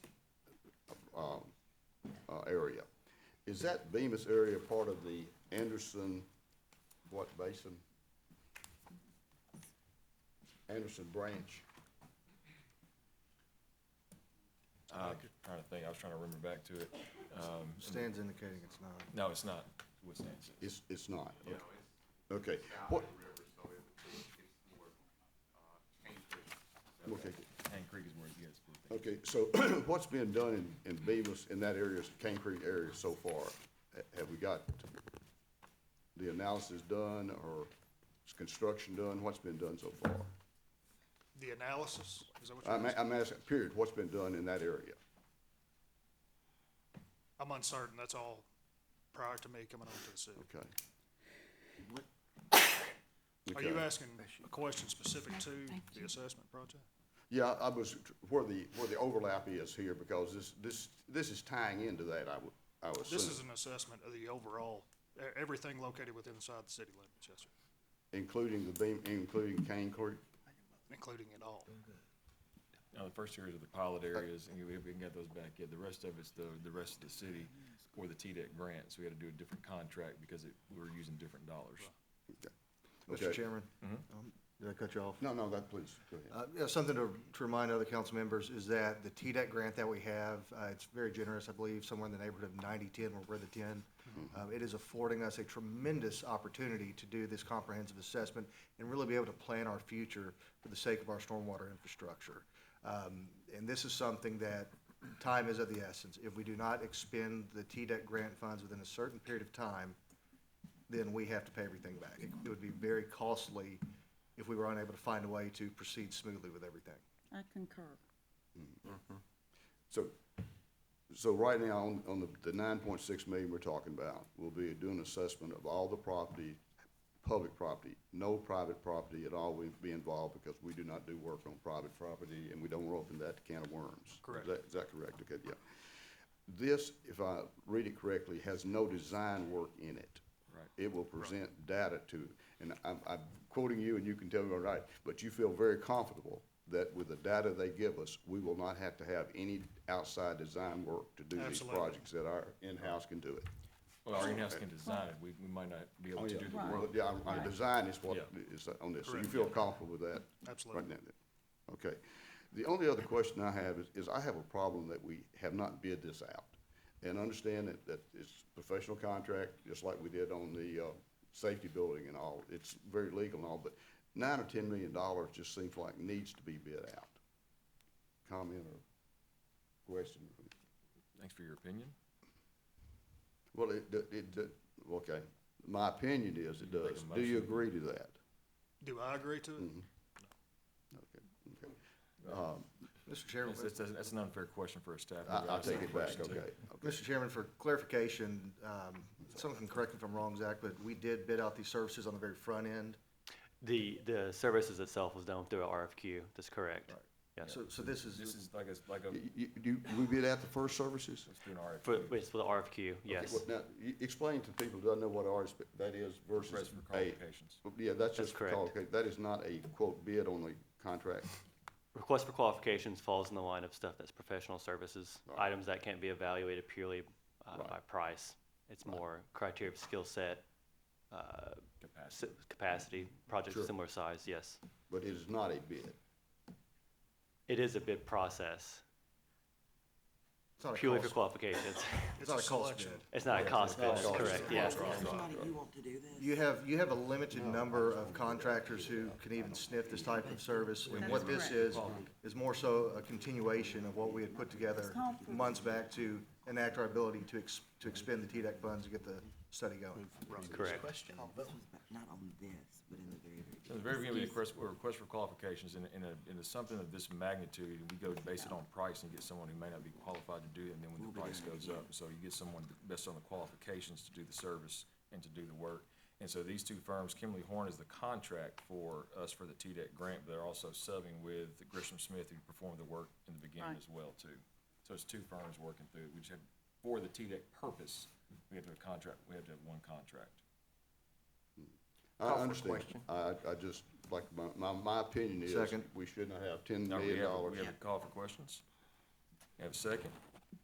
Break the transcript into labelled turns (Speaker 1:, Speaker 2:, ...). Speaker 1: uh, area. Is that Bemis area part of the Anderson, what basin? Anderson Branch?
Speaker 2: I was Uh, trying to think, I was trying to remember back to it. Um,
Speaker 3: Stan's indicating it's not.
Speaker 2: No, it's not what stands it.
Speaker 1: It's, it's not. Okay. What, okay,
Speaker 2: Hand Creek is where it gets. but they-
Speaker 1: okay, so what's been done in, in Bemis, in that area, Cane Creek area so far? Ha- Have we got the analysis done or is construction done? What's been done so far?
Speaker 4: The analysis, is that what
Speaker 1: I'm,
Speaker 4: you're
Speaker 1: a-
Speaker 4: asking?
Speaker 1: I'm asking, period, what's been done in that area?
Speaker 4: I'm uncertain, that's all prior to me coming onto the city.
Speaker 1: Okay.
Speaker 4: Are
Speaker 1: Okay.
Speaker 4: you asking a question specific to the assessment project?
Speaker 1: Yeah, I was, tr- where the, where the overlap is here, because this, this, this is tying into that, I would, I would
Speaker 4: This
Speaker 1: assume,
Speaker 4: is an assessment of the overall, e- everything located within inside the city limits, yes, sir,
Speaker 1: including the beam, including Cane Creek.
Speaker 4: including it all.
Speaker 2: Now, the first areas are the pilot areas, and we, we can get those back in. The rest of it's the, the rest of the city or the TDEC grants. We had to do a different contract because it, we were using different dollars.
Speaker 1: Okay.
Speaker 3: Mr. Chairman, um, did I cut you off?
Speaker 1: No, no, that, please, go ahead.
Speaker 3: Uh, yeah, something to, to remind other council members is that the TDEC grant that we have, uh, it's very generous, I believe, somewhere in the neighborhood of ninety-ten, we're the ten. Um, it is affording us a tremendous opportunity to do this comprehensive assessment and really be able to plan our future for the sake of our stormwater infrastructure. Um, and this is something that time is of the essence. If we do not expend the TDEC grant funds within a certain period of time, then we have to pay everything back. It it would be very costly if we were unable to find a way to proceed smoothly with everything.
Speaker 5: I concur.
Speaker 1: So, so right now, on, on the, the nine point six million we're talking about, we'll be doing assessment of all the property, public property, no private property at all will be involved, because we do not do work on private property, and we don't want to open that can of worms. Is
Speaker 4: Correct.
Speaker 1: that- Is that correct? Okay, yeah. This, if I read it correctly, has no design work in it.
Speaker 2: Right.
Speaker 1: It will present data to, and I'm, I'm quoting you and you can tell me I'm right, but you feel very comfortable that with the data they give us, we will not have to have any outside design work to do these
Speaker 4: Absolutely.
Speaker 1: projects, that our in-house can do it.
Speaker 2: Well, our in-house can design it. We, we might not be able to do the
Speaker 5: Right.
Speaker 2: work.
Speaker 1: Well, Oh, Yeah, our- our design is what
Speaker 2: Yeah.
Speaker 1: is on this, so you
Speaker 4: Correct.
Speaker 1: feel comfortable with that?
Speaker 4: Absolutely.
Speaker 1: right now then? Okay. The only other question I have is, is I have a problem that we have not bid this out. And understand that, that it's professional contract, just like we did on the, uh, safety building and all. It's very legal and all, but nine or ten million dollars just seems like needs to be bid out. Comment or question?
Speaker 2: Thanks for your opinion.
Speaker 1: Well, it, it, it, okay. My opinion is it
Speaker 2: You make a
Speaker 1: does. Do you
Speaker 2: motion.
Speaker 1: agree to that?
Speaker 4: Do I agree to it?
Speaker 1: Okay, okay.
Speaker 3: Mr. Chairman,
Speaker 2: That's, that's, that's an unfair question for a staff. member.
Speaker 1: Um, I, I'll
Speaker 2: That's not
Speaker 1: take
Speaker 2: a
Speaker 1: it back,
Speaker 2: question to-
Speaker 1: okay.
Speaker 3: Mr. Chairman, for clarification, um, someone can correct me if I'm wrong, Zach, but we did bid out these services on the very front end.
Speaker 6: The, the services itself was done through a RFQ, that's correct. Yes,
Speaker 3: So, so this
Speaker 2: This
Speaker 3: is,
Speaker 2: is like a, like a,
Speaker 1: You, you, do we bid out the first services?
Speaker 2: it's through an RFQ.
Speaker 6: for, it's for the RFQ, yes.
Speaker 1: Well, Now, you, explain to people who don't know what ours, that is
Speaker 2: Request
Speaker 1: versus
Speaker 2: for
Speaker 1: a.
Speaker 2: qualifications.
Speaker 1: Yeah, that's
Speaker 6: That's
Speaker 1: just, for qual- okay, that is not a quote bid on the contract.
Speaker 6: Request for qualifications falls in the line of stuff that's professional services,
Speaker 1: Right.
Speaker 6: items that can't be evaluated purely uh, by price. It's more criteria of skill set, uh,
Speaker 2: Capacity.
Speaker 6: s- capacity, projects
Speaker 1: Sure.
Speaker 6: of similar size, yes.
Speaker 1: But it is not a bid.
Speaker 6: It is a bid process,
Speaker 3: it's not a
Speaker 6: purely for
Speaker 3: cost,
Speaker 6: qualifications.
Speaker 3: it's not
Speaker 4: a
Speaker 3: a cost
Speaker 4: selection.
Speaker 3: bid.
Speaker 6: It's not a cost bid, that's
Speaker 1: cost bid.
Speaker 6: correct, yes.
Speaker 7: Somebody who want to do this.
Speaker 3: You have, you have a limited number of contractors who can even sniff this type of service. And what this
Speaker 5: correct.
Speaker 3: is, is more so a continuation of what we had put together months back to enact our ability to ex, to expend the TDEC funds to get the study going.
Speaker 6: Correct.
Speaker 7: This was about- Not on this, but in the very, very.
Speaker 2: So the very beginning, we request, we request for qualifications, and, and, a- and it's something of this magnitude, and we go base it on price and get someone who may not be qualified to do it, and then when the price goes up, so you get someone based on the qualifications to do the service and to do the work. And so these two firms, Kimley Horn is the contract for us for the TDEC grant, but they're also subbing with Grisham Smith, who performed the work in the beginning
Speaker 5: Right.
Speaker 2: as well, too. So it's two firms working through it, we just have, for the TDEC purpose, we have to have a contract, we have to have one contract.
Speaker 1: I understand. I, I just, like, my, my, my opinion is
Speaker 3: Second.
Speaker 1: we should not have ten
Speaker 2: Now, we
Speaker 1: million
Speaker 2: have,
Speaker 1: dollars.
Speaker 2: we have a call for questions? We Have a second?